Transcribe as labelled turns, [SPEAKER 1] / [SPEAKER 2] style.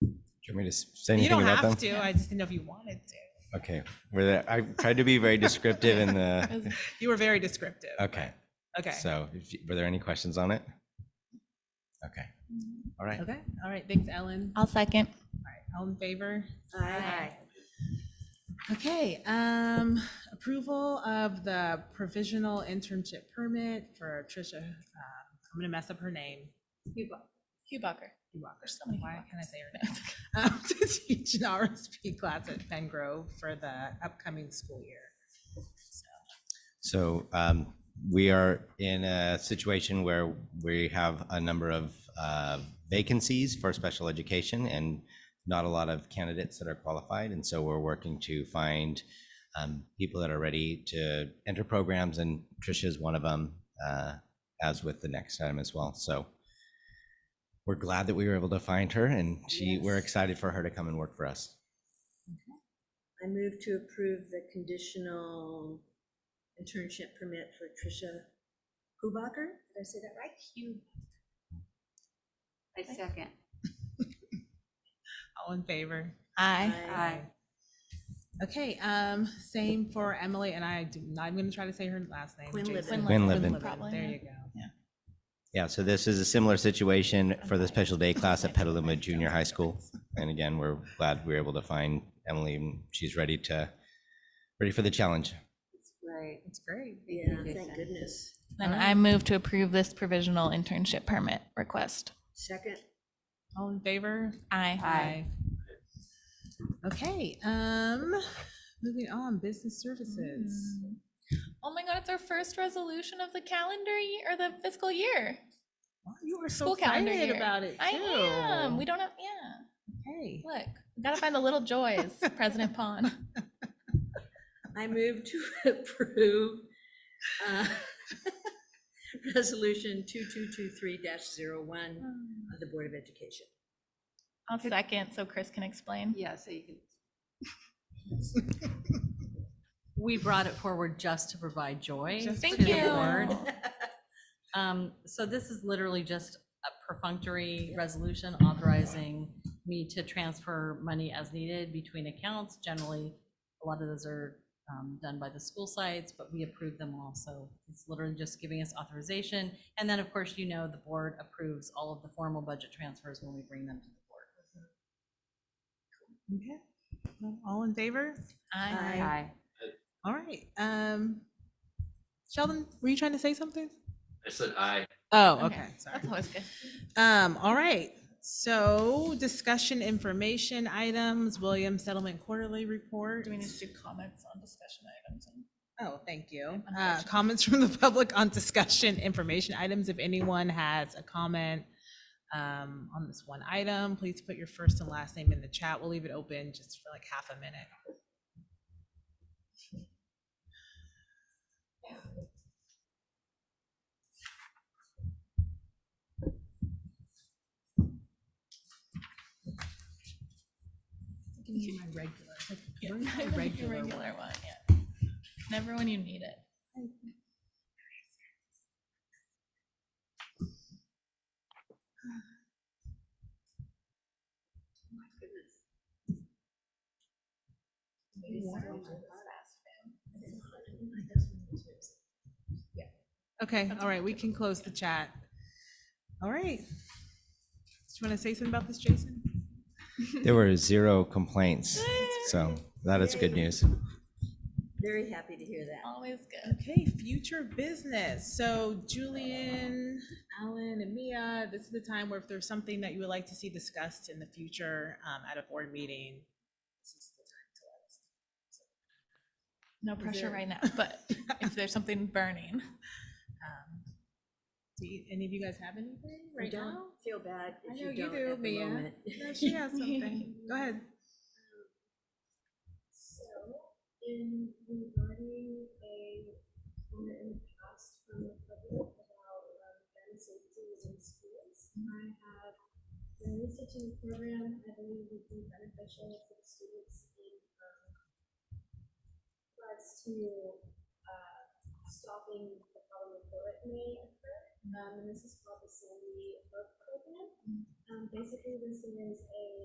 [SPEAKER 1] Do you want me to s- say
[SPEAKER 2] You
[SPEAKER 1] anything
[SPEAKER 2] don't
[SPEAKER 1] about them?
[SPEAKER 2] have to. I just didn't know if you wanted to.
[SPEAKER 1] Okay, we're there. I tried to be very descriptive in the,
[SPEAKER 2] You were very descriptive.
[SPEAKER 1] okay.
[SPEAKER 2] Okay.
[SPEAKER 1] So if you- were there any questions on it? Okay, all right.
[SPEAKER 2] Okay.
[SPEAKER 3] All right, thanks, Ellen.
[SPEAKER 4] I'll second.
[SPEAKER 2] All in favor?
[SPEAKER 3] Aye.
[SPEAKER 2] Okay, um, approval of the provisional internship permit for Trisha, um, I'm gonna mess up her name.
[SPEAKER 4] Hubacher.
[SPEAKER 2] Walker,
[SPEAKER 4] so many
[SPEAKER 2] why can I say her name? Um, To teach an RSP class at Pen Grove for the upcoming school year. So,
[SPEAKER 1] So um, we are in a situation where we have a number of uh, vacancies for special education and not a lot of candidates that are qualified. And so we're working to find um, people that are ready to enter programs, and Tricia is one of them, uh, as with the next item as well. So we're glad that we were able to find her, and she, we're
[SPEAKER 5] Yes.
[SPEAKER 1] excited for her to come and work for us.
[SPEAKER 5] I move to approve the conditional internship permit for Tricia Hubacher. Did I say that right? Hugh.
[SPEAKER 6] I second.
[SPEAKER 2] All in favor?
[SPEAKER 4] Aye.
[SPEAKER 5] Aye.
[SPEAKER 2] Okay, um, same for Emily, and I do not, I'm gonna try to say her last name.
[SPEAKER 5] Quinlivan.
[SPEAKER 2] Jason.
[SPEAKER 1] Quinlivan.
[SPEAKER 4] Probably,
[SPEAKER 2] There
[SPEAKER 4] yeah.
[SPEAKER 2] you go.
[SPEAKER 1] Yeah, so this is a similar situation for the special day class at Petaluma Junior High School. And again, we're glad we were able to find Emily. and She's ready to, ready for the challenge.
[SPEAKER 6] Right.
[SPEAKER 2] It's great.
[SPEAKER 5] Yeah, thank goodness.
[SPEAKER 4] Then I move to approve this provisional internship permit request.
[SPEAKER 5] Second,
[SPEAKER 2] All in favor?
[SPEAKER 4] Aye.
[SPEAKER 6] Aye.
[SPEAKER 2] Okay, um, moving on, business services.
[SPEAKER 7] Oh my god, it's our first resolution of the calendar year or the fiscal year.
[SPEAKER 2] Wow, You are so
[SPEAKER 7] School calendar
[SPEAKER 2] excited
[SPEAKER 7] year.
[SPEAKER 2] about it too.
[SPEAKER 7] I am. We don't have yeah.
[SPEAKER 2] Okay.
[SPEAKER 7] Look, we gotta find the little joys, President Pond.
[SPEAKER 5] I move to approve uh, Resolution 2223-01 of the Board of Education.
[SPEAKER 7] I'll second so Chris can explain.
[SPEAKER 6] Yeah, so you can.
[SPEAKER 3] We brought it forward just to provide joy.
[SPEAKER 2] Just
[SPEAKER 7] Thank
[SPEAKER 3] to the
[SPEAKER 7] you.
[SPEAKER 3] board. Um, So this is literally just a perfunctory resolution authorizing me to transfer money as needed between accounts. Generally, a lot of those are um, done by the school sites, but we approve them all. So it's literally just giving us authorization. And then, of course, you know, the board approves all of the formal budget transfers when we bring them to the board.
[SPEAKER 2] Okay. Well, All in favor?
[SPEAKER 4] Aye.
[SPEAKER 6] Aye.
[SPEAKER 2] All right. Um, Sheldon, were you trying to say something?
[SPEAKER 8] I said aye.
[SPEAKER 2] Oh,
[SPEAKER 7] Okay,
[SPEAKER 2] okay, sorry.
[SPEAKER 7] That's always good.
[SPEAKER 2] Um, all right, so discussion information items, Williams Settlement Quarterly Report.
[SPEAKER 7] Do we need to do comments on discussion items?
[SPEAKER 2] Oh, thank you. Uh,
[SPEAKER 7] Unfortunately.
[SPEAKER 2] comments from the public on discussion information items. If anyone has a comment um, on this one item, please put your first and last name in the chat. We'll leave it open just for like half a minute.
[SPEAKER 7] Give me my regular. Regular, regular one, yeah. Never when you need it.
[SPEAKER 2] Okay,
[SPEAKER 7] That's
[SPEAKER 2] all right, we
[SPEAKER 7] fine.
[SPEAKER 2] can close the chat. All right. Do you want to say something about this, Jason?
[SPEAKER 1] There were zero complaints, so that is good news.
[SPEAKER 5] Very happy to hear that.
[SPEAKER 7] Always good.
[SPEAKER 2] Okay, future business. So Julian, Alan, and Mia, this is the time where if there's something that you would like to see discussed in the future um, at a board meeting, this is the time to let us
[SPEAKER 7] No pressure right now, but if there's something burning. um,
[SPEAKER 2] Do you- any of you guys have anything
[SPEAKER 5] You
[SPEAKER 2] right
[SPEAKER 5] don't
[SPEAKER 2] now?
[SPEAKER 5] Feel bad
[SPEAKER 2] I
[SPEAKER 5] if
[SPEAKER 2] know
[SPEAKER 5] you
[SPEAKER 2] you
[SPEAKER 5] don't
[SPEAKER 2] do,
[SPEAKER 5] at the
[SPEAKER 2] Mia.
[SPEAKER 5] moment.
[SPEAKER 2] No, she has something. Go ahead.
[SPEAKER 5] So, in regarding a comment in the past from the public about um, gun safety in schools, I have been researching a program I believe would be beneficial for the students in um, regards to uh, stopping the problem of bullet may occur. Um, and this is called the Sandy Hook program. Um, basically, this is a